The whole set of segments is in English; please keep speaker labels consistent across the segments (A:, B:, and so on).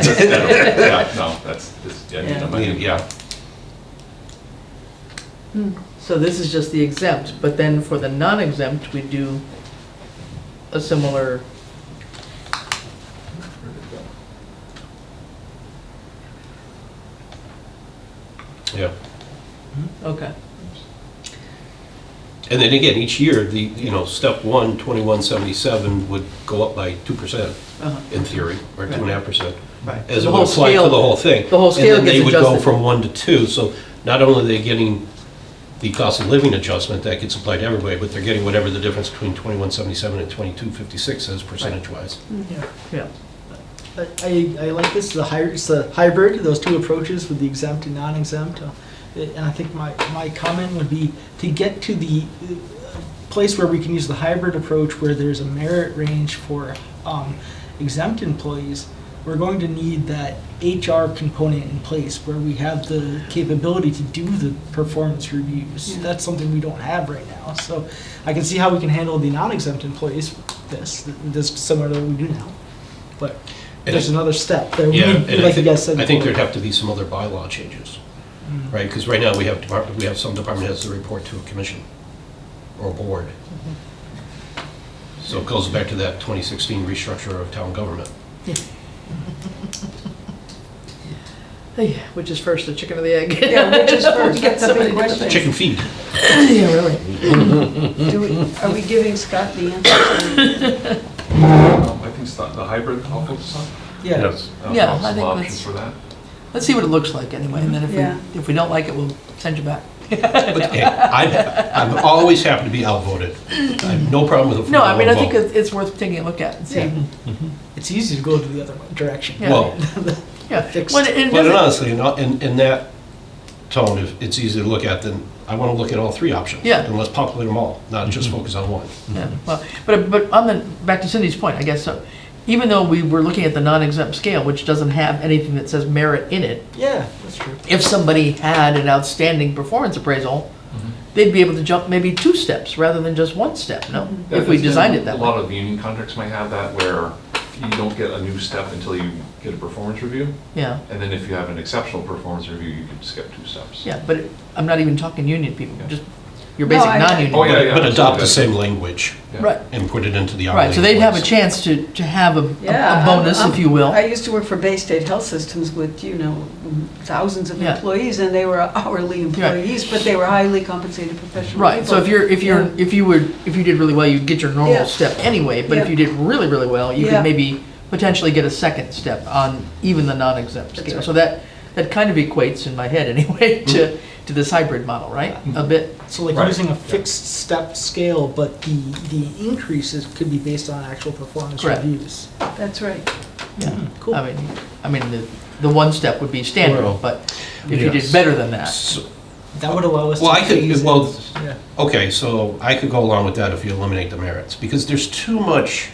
A: Yeah, no, that's, just- yeah, you
B: Yeah.
A: know, my- yeah.
B: So this is just the exempt, but then for the non-exempt, we do a similar,
C: Yeah.
B: okay.
C: And then again, each year, the, you know, step one, 2177 would go up by 2%
B: uh-huh.
C: in theory, or 2.5%.
D: Right.
C: As
B: The
C: it
B: whole
C: would apply to the
B: scale-
C: whole thing.
B: the whole scale
C: And then they
B: gets
C: would go
B: adjusted.
C: from one to two, so not only are they getting the cost of living adjustment that gets applied to everybody, but they're getting whatever the difference between 2177 and 2256 is percentage-wise.
D: Yeah.
B: Yeah,
D: I, I I like this, the hybrid, it's the hybrid, those two approaches with the exempt and non-exempt. uh, And I think my, my comment would be to get to the uh, place where we can use the hybrid approach where there's a merit range for um, exempt employees, we're going to need that HR component in place where we have the capability to do the performance reviews.
B: Yeah.
D: That's something we don't have right now. So I can see how we can handle the non-exempt employees, this, this similar to what we do now. But
C: And
D: there's
C: I-
D: another step there. We
C: Yeah, and
D: need-
C: I
D: like you
C: think,
D: guys said
C: I think
D: before.
C: there'd have to be some other bylaw changes,
D: Mm.
C: right? Because right now, we have department, we have some department heads that report to a commission or a board. So it goes back to that 2016 restructure of town government.
B: Hey, Which is first, the chicken or the egg?
E: Yeah, which is first?
B: Get
E: That's a
B: somebody to do
E: big
B: the
E: question.
C: Chicken feed.
B: Yeah, really.
E: Do we, are we giving Scott the answer?
A: Um, I think it's not- the hybrid, I'll focus on.
D: Yeah,
A: I'll
B: Yeah,
A: come up with
B: I think
A: Some options
B: that's-
A: for that.
B: Let's see what it looks like anyway, and then if
E: Yeah.
B: we, if we don't like it, we'll send you back.
C: But, hey, I'm, I'm always happy to be outvoted. I have no problem with a four to
B: No, I mean, I
C: one
B: think
C: vote.
B: it's it's worth taking a look at and see.
D: Yeah.
C: Mm-hmm.
D: it's easy to go to the other direction.
B: yeah.
C: Well,
B: Yeah.
D: Fixed.
B: When it- it
C: but
B: doesn't-
C: honestly, in, in in that tone, if it's easy to look at, then I want to look at all three options.
B: Yeah.
C: And let's populate them all, not just
A: Mm-hmm.
C: focus on one.
B: Yeah, well, but, but on the, back to Cindy's point, I guess, so, even though we were looking at the non-exempt scale, which doesn't have anything that says merit in it,
D: Yeah, that's true.
B: if somebody had an outstanding performance appraisal,
A: Mm-hmm.
B: they'd be able to jump maybe two steps rather than just one step, no?
E: Mm-hmm.
A: Yeah,
B: If we
A: that's-
B: designed it that
A: A lot
B: way.
A: of the union contracts might have that where you don't get a new step until you get a performance review.
B: Yeah,
A: And then if you have an exceptional performance review, you can skip two steps.
B: yeah, but it- I'm not even talking union people,
A: Yeah.
B: just your
E: No,
B: basic
E: I-
B: non-union.
A: Oh, yeah, yeah.
C: But adopt the
A: absolutely.
C: same language
A: Yeah.
B: Right,
C: and put it into the hourly.
B: right, so they'd have a
C: employees.
B: chance to, to have a- a,
E: Yeah,
B: a bonus,
E: I'm-
B: if you will.
E: I used to work for Bay State Health Systems with, you know, thousands of
B: Yeah.
E: employees, and they were hourly employees, but they were highly compensated professional people.
B: Right, so if you're, if you're,
E: Yeah.
B: if you would, if you did really well, you'd get your
E: Yeah.
B: normal step anyway, but if
E: Yeah.
B: you did really, really well, you
E: Yeah.
B: could maybe potentially get a second step on even the non-exempt
E: That's
B: scale.
E: right.
B: So that, that kind of equates in my head anyway to,
C: Mm-hmm.
B: to this hybrid model, right? A bit,
D: So like
A: Right.
D: using a fixed step scale, but the, the increases could be based on actual performance
B: Correct.
D: reviews.
E: That's right.
B: yeah.
D: Cool.
B: I mean, I mean, the, the one step would be standard,
C: Well,
B: but if you did
C: yes.
B: better than that,
C: So-
D: That would allow us to.
C: Well, I could-
D: phase
C: well,
D: in- yeah.
C: Okay, so I could go along with that if you eliminate the merits, because there's too much,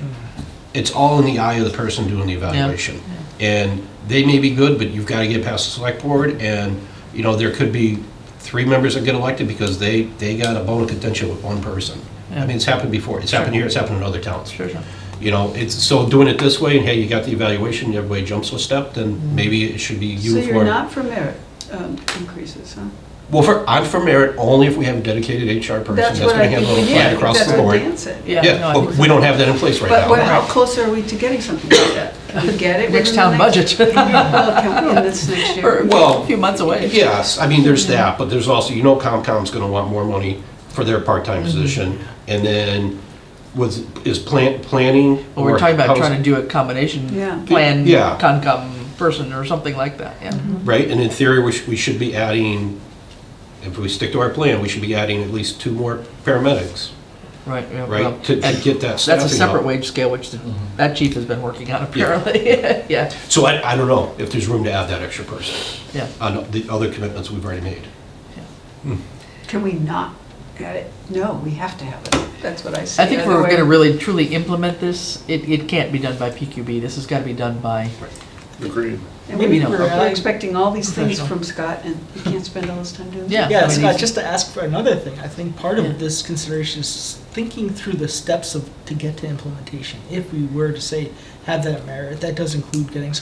C: it's all in the eye of the person doing the evaluation. And they may be good, but you've got to get past the select board, and, you know, there could be three members that get elected because they, they got a bone of contention with one person. I mean, it's happened before, it's happened
B: Sure.
C: here, it's happened in other towns.
B: sure, sure.
C: You know, it's, so doing it this way, and hey, you got the evaluation, everybody jumps a step, then maybe it should be
E: So
C: uniform.
E: you're not for merit um, increases, huh?
C: Well, for, I'm for merit only if we have a dedicated HR person that's
E: That's
C: going
E: what
C: to
E: I think
C: handle
E: we
C: it
E: need. I
C: applied
E: think
C: across
E: that's
C: the
E: what
C: board.
E: Dan said.
B: Yeah. no, I
C: Yeah,
B: think
C: but
B: so.
C: we don't have that in place right
E: But what-
C: now.
E: how close are we to getting something like that? Can we get it?
B: Next
E: within the
B: town budget,
E: Well, can we in this next
B: or
E: year?
C: Well,
B: a few months away.
C: Yes, I mean, there's
B: Mm-hmm.
C: that, but there's also, you know COMCOM's gonna want more money for their part-time
B: Mm-hmm.
C: position. And then was, is plant, planning?
B: Well, we're talking about
C: housing-
B: trying to do a combination
E: Yeah.
B: plan,
C: Yeah.
B: concom person or something like that, yeah.
E: Mm-hmm.
C: Right, and in theory, we should, we should be adding, if we stick to our plan, we should be adding at least two more paramedics,
B: Right, yeah, well,
C: right? To to
B: and
C: get that
B: That's a
C: staffing up.
B: separate wage scale, which the- that chief has been working on apparently, yeah,
C: So I, I don't know if there's room to add that extra person
B: yeah.
C: on the other commitments we've already made.
E: Can we not get it? No, we have to have it. That's what I say.
B: I think if
E: Other
B: we're
E: way-
B: gonna really truly implement this, it, it can't be done by PQB, this has gotta be done by,
F: Agreed.
E: And we-
B: maybe not,
E: We're
D: but-
E: we're expecting all these things
B: Professional.
E: from Scott, and we can't spend all this time doing that.
B: Yeah. I
D: Yeah,
B: mean,
D: Scott,
B: he's-
D: just to ask for another thing, I think part
B: Yeah.
D: of this consideration is thinking through the steps of, to get to implementation. If we were to say, have that merit, that does include getting some